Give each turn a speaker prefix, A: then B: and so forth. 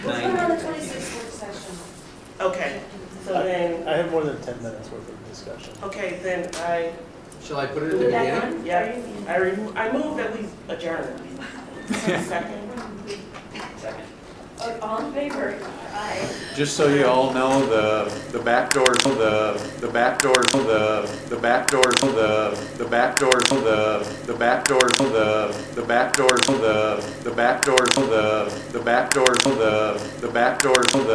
A: have more than ten minutes worth of discussion.
B: Okay, then I,
C: Shall I put it at the beginning?
B: yeah, I remo- I move that we adjourn. Second? Second.
D: All in favor? Aye.
E: Just so you all know, the, the back doors, the, the back doors, the, the back doors, the, the back doors, the, the back doors, the, the back doors, the, the back doors, the, the back doors, the, the back doors, the,